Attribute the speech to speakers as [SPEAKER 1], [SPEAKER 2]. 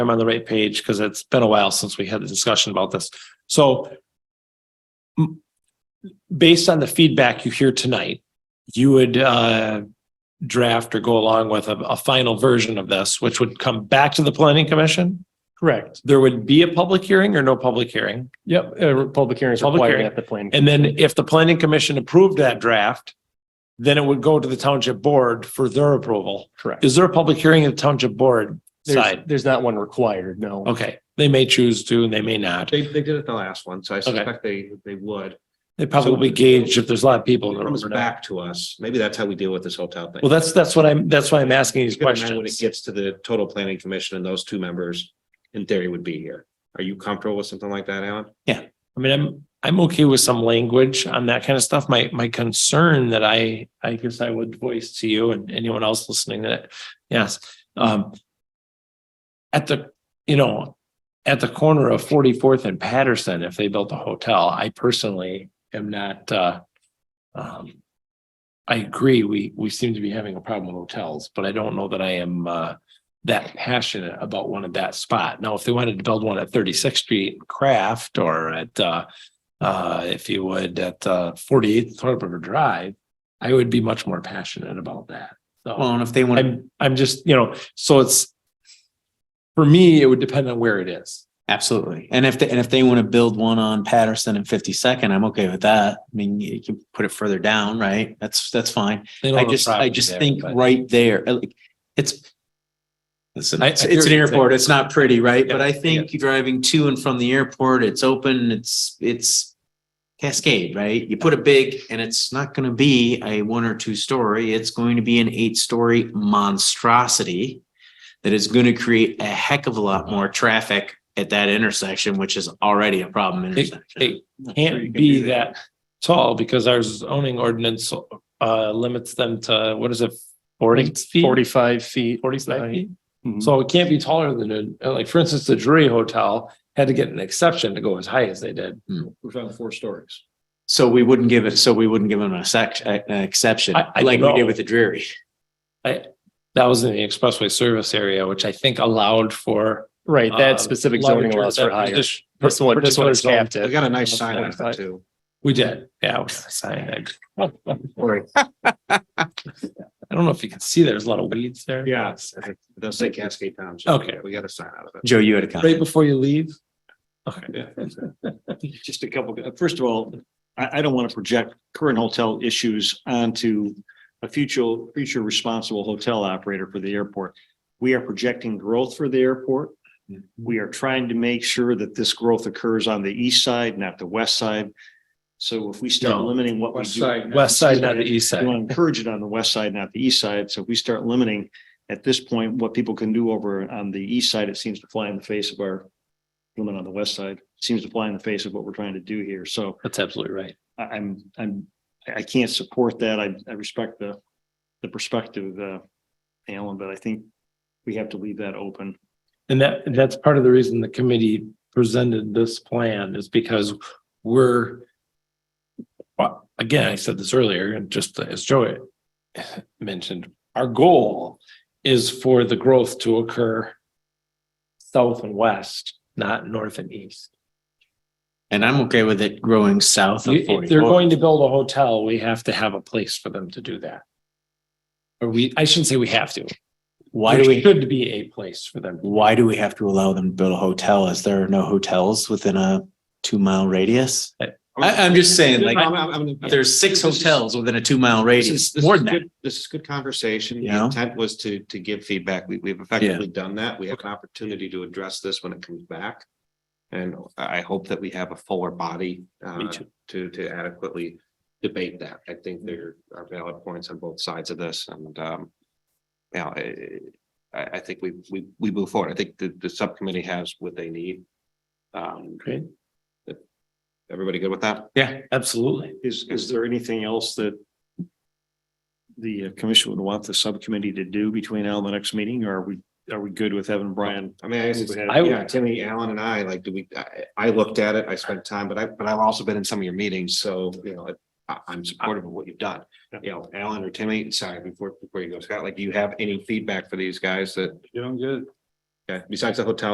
[SPEAKER 1] I'm on the right page because it's been a while since we had the discussion about this. So m- based on the feedback you hear tonight, you would uh, draft or go along with a, a final version of this, which would come back to the planning commission?
[SPEAKER 2] Correct.
[SPEAKER 1] There would be a public hearing or no public hearing?
[SPEAKER 2] Yep. Uh, public hearings
[SPEAKER 1] Public
[SPEAKER 2] required
[SPEAKER 1] hearing.
[SPEAKER 2] at the plan.
[SPEAKER 1] And then if the planning commission approved that draft, then it would go to the township board for their approval.
[SPEAKER 2] Correct.
[SPEAKER 1] Is there a public hearing at the township board
[SPEAKER 2] There's,
[SPEAKER 1] side?
[SPEAKER 2] there's not one required, no.
[SPEAKER 1] Okay, they may choose to and they may not.
[SPEAKER 3] They, they did it the last one, so I suspect they, they would.
[SPEAKER 1] They probably gauge if there's a lot of people in the
[SPEAKER 3] It
[SPEAKER 1] room
[SPEAKER 3] comes
[SPEAKER 1] or not.
[SPEAKER 3] back to us. Maybe that's how we deal with this hotel thing.
[SPEAKER 1] Well, that's, that's what I'm, that's why I'm asking these
[SPEAKER 3] Keep in mind When it
[SPEAKER 1] questions.
[SPEAKER 3] gets to the total planning commission and those two members, in theory, would be here. Are you comfortable with something like that, Alan?
[SPEAKER 1] I mean, I'm, I'm okay with some language on that kind of stuff. My, my concern that I, I guess I would voice to you and anyone else listening that, yes, um. At the, you know, at the corner of Forty-Fourth and Patterson, if they built a hotel, I personally am not, uh. Um, I agree, we, we seem to be having a problem with hotels, but I don't know that I am, uh. That passionate about one at that spot. Now, if they wanted to build one at Thirty-Sixth Street Craft or at, uh. Uh, if you would, at, uh, Forty-Eighth Thorpe River Drive, I would be much more passionate about that. So.
[SPEAKER 4] Well, and if they want,
[SPEAKER 1] I'm, I'm just, you know, so it's, for me, it would depend on where it is.
[SPEAKER 4] absolutely. And if, they and if they want to build one on Patterson and Fifty Second, I'm okay with that. I mean, you can put it further down, right? That's, that's fine.
[SPEAKER 1] They don't
[SPEAKER 4] I
[SPEAKER 1] have a
[SPEAKER 4] just, I
[SPEAKER 1] property
[SPEAKER 4] just
[SPEAKER 1] there,
[SPEAKER 4] think
[SPEAKER 1] but-
[SPEAKER 4] right there, uh, like, it's. Listen,
[SPEAKER 1] I- I
[SPEAKER 4] it's
[SPEAKER 1] hear
[SPEAKER 4] it's
[SPEAKER 1] what
[SPEAKER 4] an
[SPEAKER 1] you're
[SPEAKER 4] airport. It's not pretty, right?
[SPEAKER 1] Yeah,
[SPEAKER 4] But I think driving to and from the airport, it's open, it's, it's. Cascade, right? You put a big, and it's not gonna be a one or two story. It's going to be an eight story monstrosity. That is gonna create a heck of a lot more traffic at that intersection, which is already a problem intersection.
[SPEAKER 1] It can't be that tall because our zoning ordinance, uh, limits them to, what is it? Forty feet?
[SPEAKER 2] Forty-five feet.
[SPEAKER 1] Forty-five feet?
[SPEAKER 2] Mhm.
[SPEAKER 1] So it can't be taller than, a- like, for instance, the Drury Hotel had to get an exception to go as high as they did.
[SPEAKER 3] We've done four stories.
[SPEAKER 4] So we wouldn't give it, so we wouldn't give them a sec, a- an exception,
[SPEAKER 1] I- I
[SPEAKER 4] like we
[SPEAKER 1] don't know.
[SPEAKER 4] did with the Dreary.
[SPEAKER 1] That was in the expressway service area, which I think allowed for.
[SPEAKER 2] Right,
[SPEAKER 1] uh,
[SPEAKER 2] that specific zoning
[SPEAKER 1] larger-
[SPEAKER 2] allows for
[SPEAKER 1] that
[SPEAKER 2] higher.
[SPEAKER 1] partic-
[SPEAKER 2] This one, this one
[SPEAKER 1] particular
[SPEAKER 2] is
[SPEAKER 1] zone.
[SPEAKER 2] capped
[SPEAKER 3] We
[SPEAKER 2] at.
[SPEAKER 3] got a nice sign on it too.
[SPEAKER 1] We did, yeah, we got a sign. I- I don't know if you can see, there's a lot of weeds there.
[SPEAKER 3] Yes. It does say Cascade Township.
[SPEAKER 1] Okay.
[SPEAKER 3] We got a sign out of it.
[SPEAKER 4] Joe, you had a comment.
[SPEAKER 1] Right before you leave? Okay.
[SPEAKER 5] just a couple, first of all, I, I don't want to project current hotel issues onto a future, future responsible hotel operator for the airport. We are projecting growth for the airport. We are trying to make sure that this growth occurs on the east side, not the west side. So if we start
[SPEAKER 1] No.
[SPEAKER 5] limiting what we
[SPEAKER 3] West
[SPEAKER 5] do.
[SPEAKER 3] side,
[SPEAKER 1] West side, not the east
[SPEAKER 5] We want
[SPEAKER 1] side.
[SPEAKER 5] to encourage it on the west side, not the east side. So if we start limiting at this point, what people can do over on the east side, it seems to fly in the face of our limit on the west side, seems to fly in the face of what we're trying to do here. So
[SPEAKER 1] That's absolutely right.
[SPEAKER 5] I, I'm, I'm, I I can't support that. I, I respect the, the perspective, uh, Alan, but I think we have to leave that open.
[SPEAKER 1] And that, and that's part of the reason the committee presented this plan is because we're. Well, again, I said this earlier and just as Joey mentioned, our goal is for the growth to occur. South and west, not north and east.
[SPEAKER 4] And I'm okay with it growing south of
[SPEAKER 1] If
[SPEAKER 4] forty.
[SPEAKER 1] they're going to build a hotel, we have to have a place for them to do that. Or we, I shouldn't say we have to.
[SPEAKER 4] Why do
[SPEAKER 1] There
[SPEAKER 4] we,
[SPEAKER 1] Should be a place for them.
[SPEAKER 4] why do we have to allow them to build a hotel? Is there no hotels within a two mile radius?
[SPEAKER 1] I-
[SPEAKER 4] I, I'm just saying, like,
[SPEAKER 3] I'm- I'm- I'm-
[SPEAKER 4] there's six hotels within a two mile
[SPEAKER 3] This
[SPEAKER 4] radius,
[SPEAKER 3] is, this
[SPEAKER 4] more
[SPEAKER 3] is
[SPEAKER 4] than that.
[SPEAKER 3] good, this is good conversation. The
[SPEAKER 4] You know?
[SPEAKER 3] intent was to, to give feedback. We, we've effectively done that. We have an opportunity to address this when it comes back. And I I hope that we have a fuller body, uh, to, to adequately debate that. I think there are valid points on both sides of this and, um, you know, I, I, I think we, we, we move forward. I think the, the subcommittee has what they need. Um,
[SPEAKER 1] Okay.
[SPEAKER 3] everybody good with that?
[SPEAKER 1] Yeah, absolutely.
[SPEAKER 5] Is, is there anything else that the uh, commission would want the subcommittee to do between now and the next meeting? Or are we, are we good with Evan Bryan?
[SPEAKER 3] I mean, I guess it's-
[SPEAKER 1] I would-
[SPEAKER 3] Yeah, Timmy, Alan and I, like, do we, I, I looked at it, I spent time, but I, but I've also been in some of your meetings, so, you know, I, I'm supportive of what you've done.
[SPEAKER 5] Yeah.
[SPEAKER 3] You know, Alan or Timmy, sorry, before, before you go, Scott, like, do you have any feedback for these guys that,
[SPEAKER 5] Doing good.
[SPEAKER 3] okay, besides the hotel